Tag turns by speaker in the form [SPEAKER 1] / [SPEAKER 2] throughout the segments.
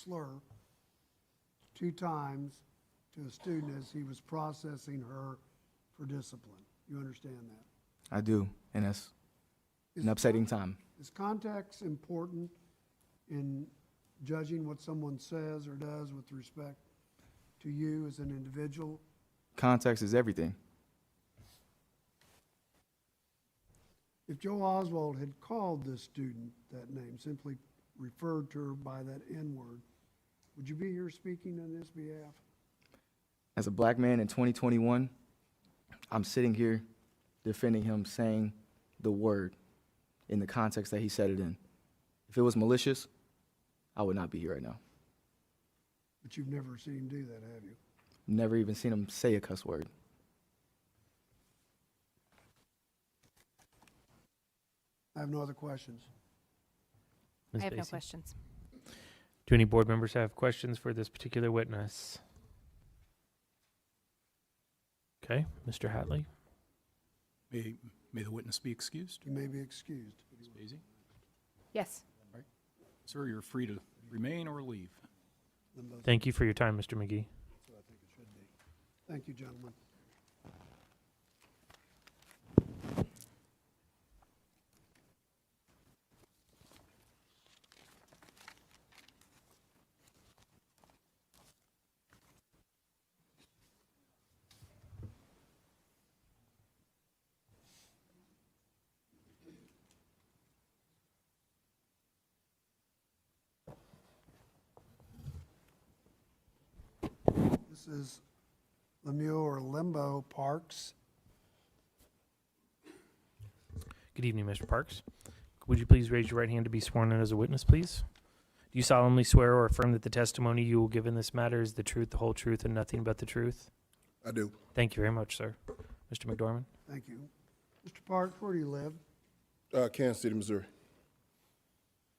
[SPEAKER 1] slur two times to a student as he was processing her for discipline. You understand that?
[SPEAKER 2] I do, and that's
[SPEAKER 1] Is
[SPEAKER 2] an upsetting time.
[SPEAKER 1] Is context important in judging what someone says or does with respect to you as an individual?
[SPEAKER 2] Context is everything.
[SPEAKER 1] If Joe Oswald had called this student that name, simply referred to her by that N-word, would you be here speaking on his behalf?
[SPEAKER 2] As a black man in 2021, I'm sitting here defending him saying the word in the context that he said it in. If it was malicious, I would not be here right now.
[SPEAKER 1] But you've never seen him do that, have you?
[SPEAKER 2] Never even seen him say a cuss word.
[SPEAKER 1] I have no other questions.
[SPEAKER 3] Ms.
[SPEAKER 4] I have no
[SPEAKER 3] Basie.
[SPEAKER 4] questions.
[SPEAKER 3] Do any board members have questions for this particular witness? Okay, Mr. Hatley.
[SPEAKER 5] May, may the witness be excused.
[SPEAKER 1] You may be excused.
[SPEAKER 5] Ms. Basie?
[SPEAKER 4] Yes.
[SPEAKER 5] Sir, you're free to remain or leave.
[SPEAKER 1] Them both.
[SPEAKER 3] Thank you for your time, Mr. McGee.
[SPEAKER 1] Thank you, gentlemen. This is Lemuel or Limbo Parks.
[SPEAKER 3] Good evening, Mr. Parks. Would you please raise your right hand to be sworn in as a witness, please? Do you solemnly swear or affirm that the testimony you will give in this matter is the truth, the whole truth, and nothing but the truth?
[SPEAKER 6] I do.
[SPEAKER 3] Thank you very much, sir. Mr. McDormand?
[SPEAKER 1] Thank you. Mr. Parks, where do you live?
[SPEAKER 6] Uh, Kansas City, Missouri.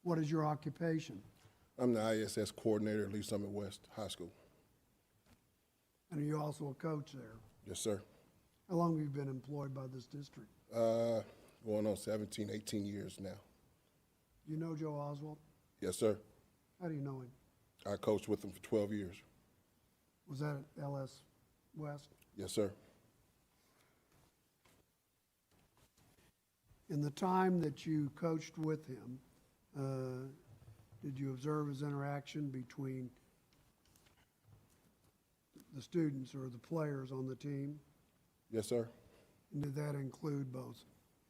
[SPEAKER 1] What is your occupation?
[SPEAKER 6] I'm the ISS coordinator at Lee Summit West High School.
[SPEAKER 1] And are you also a coach there?
[SPEAKER 6] Yes, sir.
[SPEAKER 1] How long have you been employed by this district?
[SPEAKER 6] Uh, going on 17, 18 years now.
[SPEAKER 1] Do you know Joe Oswald?
[SPEAKER 6] Yes, sir.
[SPEAKER 1] How do you know him?
[SPEAKER 6] I coached with them for 12 years.
[SPEAKER 1] Was that at LS West?
[SPEAKER 6] Yes, sir.
[SPEAKER 1] In the time that you coached with him, uh, did you observe his interaction between the students or the players on the team?
[SPEAKER 6] Yes, sir.
[SPEAKER 1] And did that include both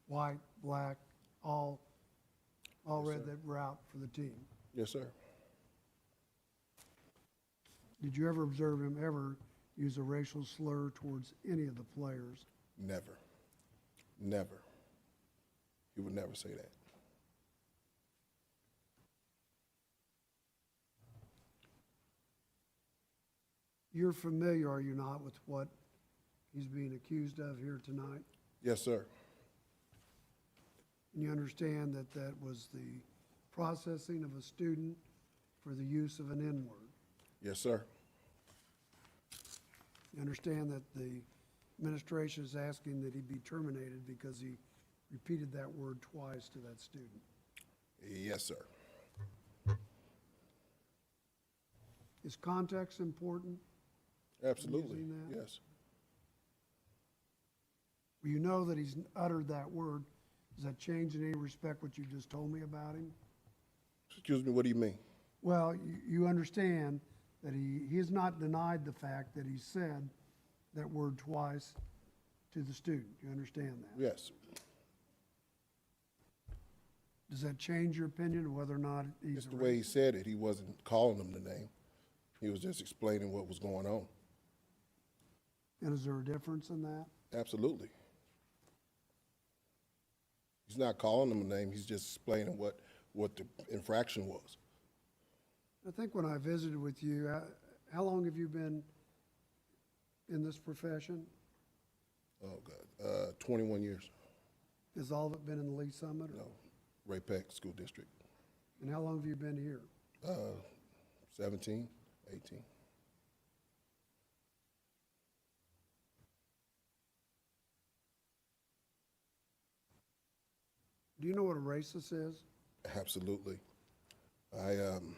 [SPEAKER 1] white, black, all, all read that were out for the team?
[SPEAKER 6] Yes, sir.
[SPEAKER 1] Did you ever observe him ever use a racial slur towards any of the players?
[SPEAKER 6] Never. Never. He would never say that.
[SPEAKER 1] You're familiar, are you not, with what he's being accused of here tonight?
[SPEAKER 6] Yes, sir.
[SPEAKER 1] And you understand that that was the processing of a student for the use of an N-word?
[SPEAKER 6] Yes, sir.
[SPEAKER 1] You understand that the administration is asking that he be terminated because he repeated that word twice to that student?
[SPEAKER 6] Yes, sir.
[SPEAKER 1] Is context important?
[SPEAKER 6] Absolutely.
[SPEAKER 1] Using that?
[SPEAKER 6] Yes.
[SPEAKER 1] Well, You know that he's uttered that word. Does that change in any respect what you just told me about him?
[SPEAKER 6] Excuse me, what do you mean?
[SPEAKER 1] Well, you, you understand that he, he has not denied the fact that he said that word twice to the student. You understand that?
[SPEAKER 6] Yes.
[SPEAKER 1] Does that change your opinion of whether or not he's
[SPEAKER 6] Just
[SPEAKER 1] a
[SPEAKER 6] the way
[SPEAKER 1] racist?
[SPEAKER 6] he said it, he wasn't calling them the name. He was just explaining what was going on.
[SPEAKER 1] And is there a difference in that?
[SPEAKER 6] Absolutely. He's not calling them a name, he's just explaining what, what the infraction was.
[SPEAKER 1] I think when I visited with you, how, how long have you been in this profession?
[SPEAKER 6] Oh, God, uh, twenty-one years,
[SPEAKER 1] Has all of it been in the Lee Summit? or-
[SPEAKER 6] no, Ray Peck School District,
[SPEAKER 1] And how long have you been here?
[SPEAKER 6] uh, 17, 18.
[SPEAKER 1] Do you know what a racist is?
[SPEAKER 6] absolutely. I, um,